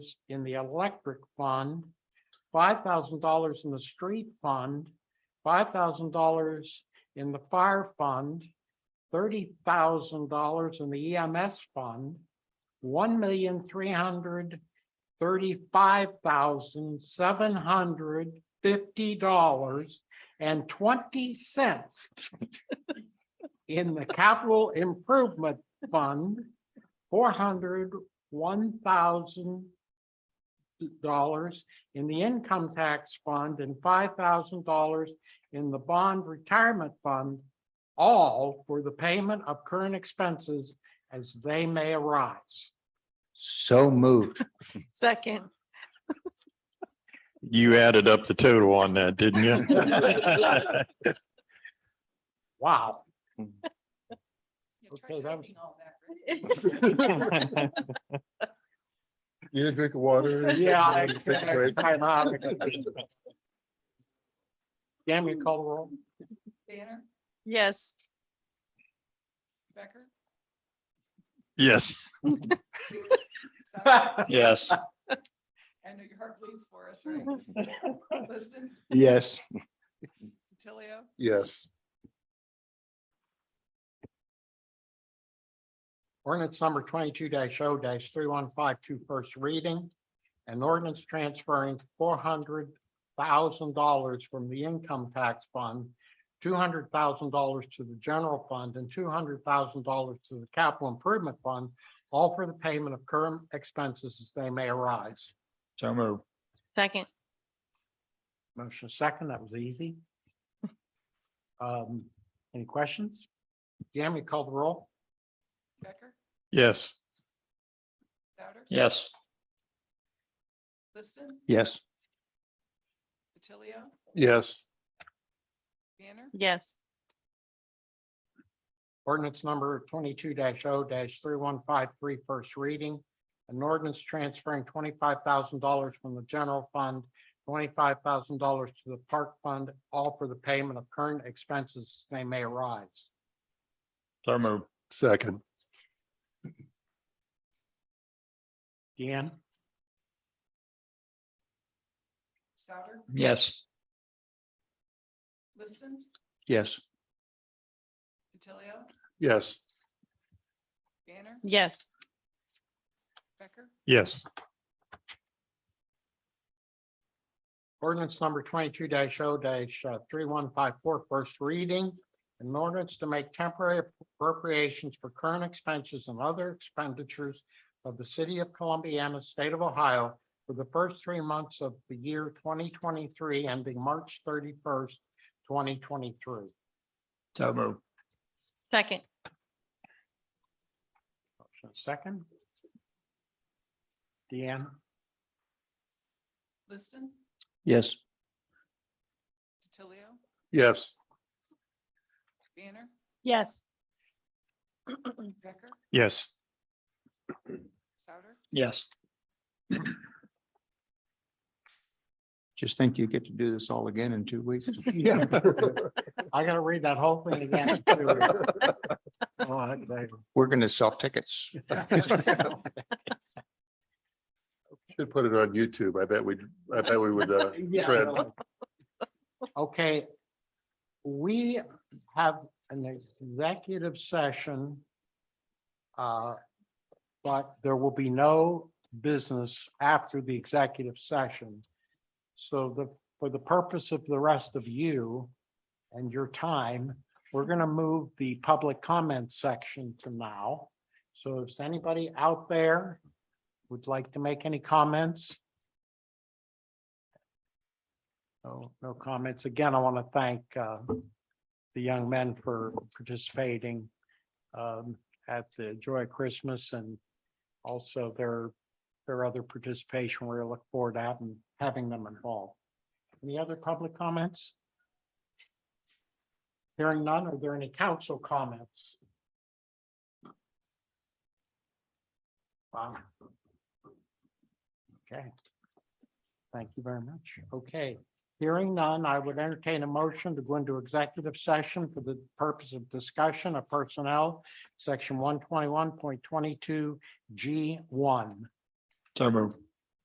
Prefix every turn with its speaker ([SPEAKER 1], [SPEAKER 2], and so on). [SPEAKER 1] in the electric fund, five thousand dollars in the street fund, five thousand dollars in the fire fund, thirty thousand dollars in the EMS fund, one million three hundred thirty-five thousand seven hundred fifty dollars and twenty cents in the capital improvement fund, four hundred one thousand dollars in the income tax fund and five thousand dollars in the bond retirement fund, all for the payment of current expenses as they may arise.
[SPEAKER 2] So moved.
[SPEAKER 3] Second.
[SPEAKER 4] You added up the total on that, didn't you?
[SPEAKER 1] Wow.
[SPEAKER 5] try
[SPEAKER 1] Okay, that was-
[SPEAKER 5] typing all that, right?
[SPEAKER 6] Get a drink of water. and-
[SPEAKER 1] Yeah. I-
[SPEAKER 6] Take a break.
[SPEAKER 1] I'm out of it. Damn, you call the roll.
[SPEAKER 5] Banner,
[SPEAKER 3] Yes.
[SPEAKER 5] Becker,
[SPEAKER 4] Yes.
[SPEAKER 5] Souter,
[SPEAKER 4] Yes.
[SPEAKER 5] I know your heart bleeds for us, right? Liston,
[SPEAKER 2] Yes.
[SPEAKER 5] DiTilio,
[SPEAKER 6] Yes,
[SPEAKER 1] Ordinance number twenty-two 0 three one five two first reading. An ordinance transferring four hundred thousand dollars from the income tax fund, two hundred thousand dollars to the general fund and two hundred thousand dollars to the capital improvement fund, all for the payment of current expenses as they may arise.
[SPEAKER 4] So move.
[SPEAKER 3] Second.
[SPEAKER 1] Motion second, that was easy. Um, any questions? Yam, you call the roll?
[SPEAKER 5] Becker,
[SPEAKER 4] Yes.
[SPEAKER 5] Souter,
[SPEAKER 4] Yes.
[SPEAKER 5] Liston,
[SPEAKER 2] Yes.
[SPEAKER 5] DiTilio,
[SPEAKER 6] yes,
[SPEAKER 5] Banner,
[SPEAKER 3] Yes.
[SPEAKER 1] Ordinance number twenty-two 0 three one five three first reading. An ordinance transferring twenty-five thousand dollars from the general fund, twenty-five thousand dollars to the park fund, all for the payment of current expenses they may arise.
[SPEAKER 4] So move.
[SPEAKER 6] second,
[SPEAKER 1] Deanne?
[SPEAKER 5] Souter,
[SPEAKER 4] Yes.
[SPEAKER 5] Liston,
[SPEAKER 2] Yes.
[SPEAKER 5] DiTilio,
[SPEAKER 6] yes,
[SPEAKER 5] Banner,
[SPEAKER 3] Yes.
[SPEAKER 5] Becker,
[SPEAKER 4] Yes.
[SPEAKER 1] Ordinance number twenty-two 0 uh, three one five four first reading. An ordinance to make temporary appropriations for current expenses and other expenditures of the city of Columbiana, state of Ohio for the first three months of the year twenty twenty-three ending March thirty-first, twenty twenty-three.
[SPEAKER 4] So move.
[SPEAKER 3] Second.
[SPEAKER 1] Motion second. Deanne?
[SPEAKER 5] Liston,
[SPEAKER 2] Yes.
[SPEAKER 5] DiTilio,
[SPEAKER 6] yes,
[SPEAKER 5] Banner,
[SPEAKER 3] Yes.
[SPEAKER 5] Becker,
[SPEAKER 4] Yes.
[SPEAKER 5] Souter,
[SPEAKER 4] Yes.
[SPEAKER 2] Just think you get to do this all again in two weeks.
[SPEAKER 1] Yeah. I gotta read that whole thing again. All right, baby.
[SPEAKER 2] We're going to sell tickets.
[SPEAKER 6] should put it on YouTube. I bet we, I bet we would, uh, Fred.
[SPEAKER 1] Okay. We have an executive session. uh, But there will be no business after the executive session. So the, for the purpose of the rest of you and your time, we're going to move the public comment section to now. So if anybody out there would like to make any comments, no, no comments. Again, I want to thank uh, the young men for participating um, at the Joy of Christmas and also their, their other participation. We look forward to having, having them involved. Any other public comments? Hearing none, are there any council comments? Wow. Okay. Thank you very much. Okay. Hearing none, I would entertain a motion to go into executive session for the purpose of discussion of personnel, section one twenty-one point twenty-two G one.
[SPEAKER 4] So move.